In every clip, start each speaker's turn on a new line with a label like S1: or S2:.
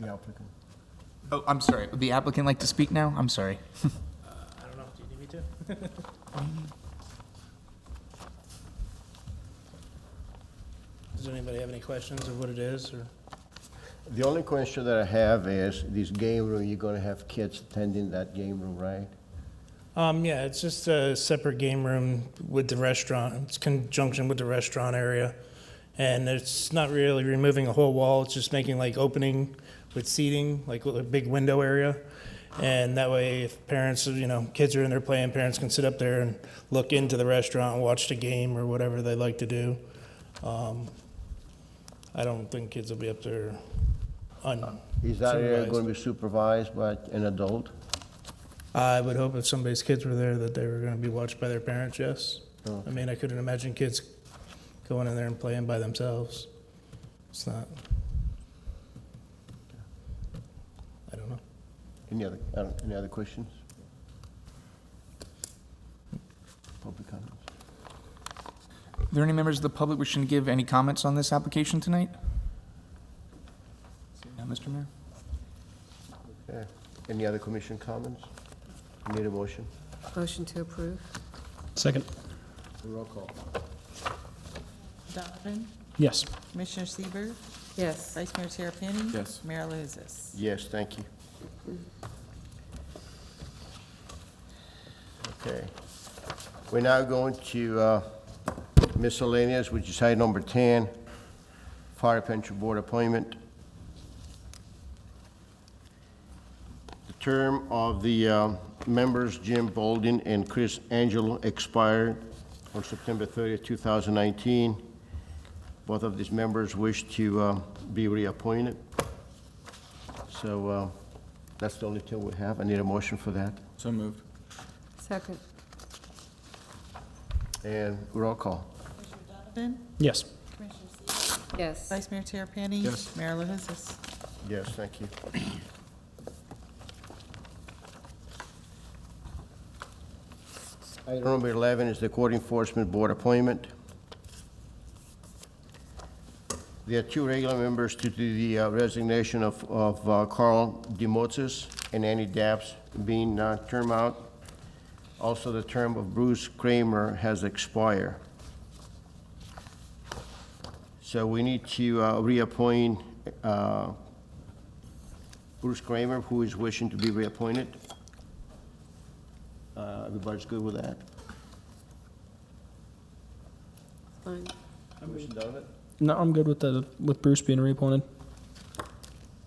S1: the applicant.
S2: Oh, I'm sorry, would the applicant like to speak now? I'm sorry.
S3: I don't know, do you need me to? Um, Does anybody have any questions of what it is, or?
S4: The only question that I have is, this game room, you're gonna have kids attending that game room, right?
S3: Um, yeah, it's just a separate game room with the restaurant. It's conjunction with the restaurant area. And it's not really removing a whole wall, it's just making like opening with seating, like with a big window area. And that way, if parents, you know, kids are in there playing, parents can sit up there and look into the restaurant and watch the game or whatever they like to do. Um, I don't think kids will be up there un.
S4: Is that area
S3: supervised.
S4: gonna be supervised by an adult?
S3: I would hope if somebody's kids were there that they were going to be watched by their parents, yes. I mean, I couldn't imagine kids going in there and playing by themselves. It's not. I don't know.
S4: Any other, I don't- any other questions? Public comments?
S2: Are there any members of the public wishing to give any comments on this application tonight? Seeing none, Mr. Mayor?
S4: Okay. Any other commission comments? Need a motion?
S5: Motion to approve?
S6: Second.
S4: Roll call.
S7: Donovan?
S6: Yes.
S7: Commissioner Sieber,
S5: Yes.
S7: Vice Mayor Terapany?
S1: Yes.
S7: Mayor Alahouzes?
S4: Yes, thank you. Okay. We're now going to uh, miscellaneous, which is item number 10, Fire Pension Board appointment. The term of the uh, members Jim Bolden and Chris Angelo expired on September 30th, 2019. Both of these members wish to uh, be reappointed. So uh, that's the only two we have. I need a motion for that.
S1: So moved.
S5: Second?
S4: And roll call.
S7: Donovan?
S6: Yes.
S7: Commissioner Sieber,
S5: Yes.
S7: Vice Mayor Terapany?
S1: Yes.
S7: Mayor Alahouzes?
S4: Yes, thank you. Item number 11 is the Court Enforcement Board appointment. There are two regular members due to the uh, resignation of of uh, Carl Demotsis and Annie Dabbs being uh, term out. Also, the term of Bruce Kramer has expired. So we need to uh, reappoint uh, Bruce Kramer, who is wishing to be reappointed. Uh, Everybody's good with that?
S5: Fine.
S4: Commissioner Donovan?
S6: No, I'm good with the with Bruce being reappointed.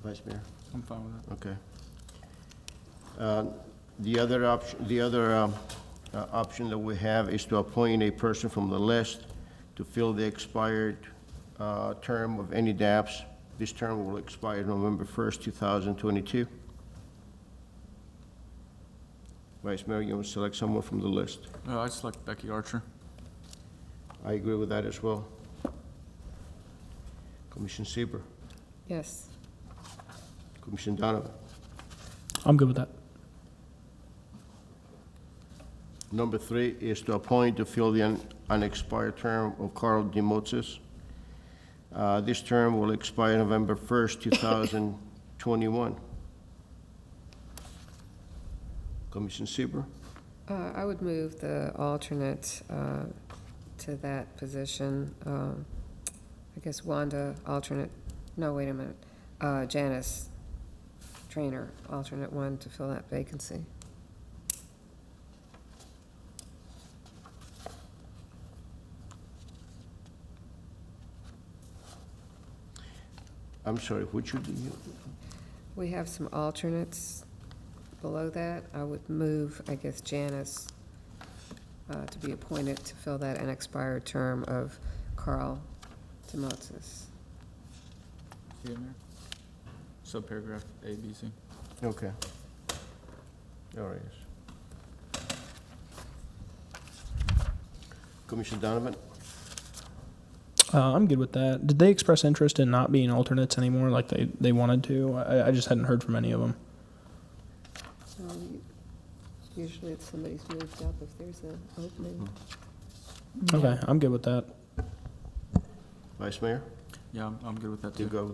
S4: Vice Mayor?
S1: I'm fine with that.
S4: Okay. Uh, The other option, the other um, uh, option that we have is to appoint a person from the list to fill the expired uh, term of any DAPS. This term will expire November 1st, 2022. Vice Mayor, you want to select someone from the list?
S1: No, I select Becky Archer.
S4: I agree with that as well. Commissioner Sieber,
S5: Yes.
S4: Commissioner Donovan.
S6: I'm good with that.
S4: Number three is to appoint to fill the un- unexpired term of Carl Demotsis. Uh, This term will expire November 1st, 2021. Commissioner Sieber,
S5: Uh, I would move the alternate uh, to that position. Um, I guess Wanda, alternate, no, wait a minute. Uh, Janice Trainer, alternate one to fill that vacancy.
S4: I'm sorry, which would you,
S5: We have some alternates below that. I would move, I guess, Janice uh, to be appointed to fill that unexpired term of Carl Demotsis.
S1: See it, Mayor? Subparagraph A, B, C.
S4: okay. There it is. Commissioner Donovan?
S6: Uh, I'm good with that. Did they express interest in not being alternates anymore, like they, they wanted to? I, I just hadn't heard from any of them.
S5: Um, Usually if somebody's moved up, if there's an opening.
S6: Okay, I'm good with that.
S4: Vice Mayor?
S1: Yeah, I'm, I'm good with that too.
S4: You go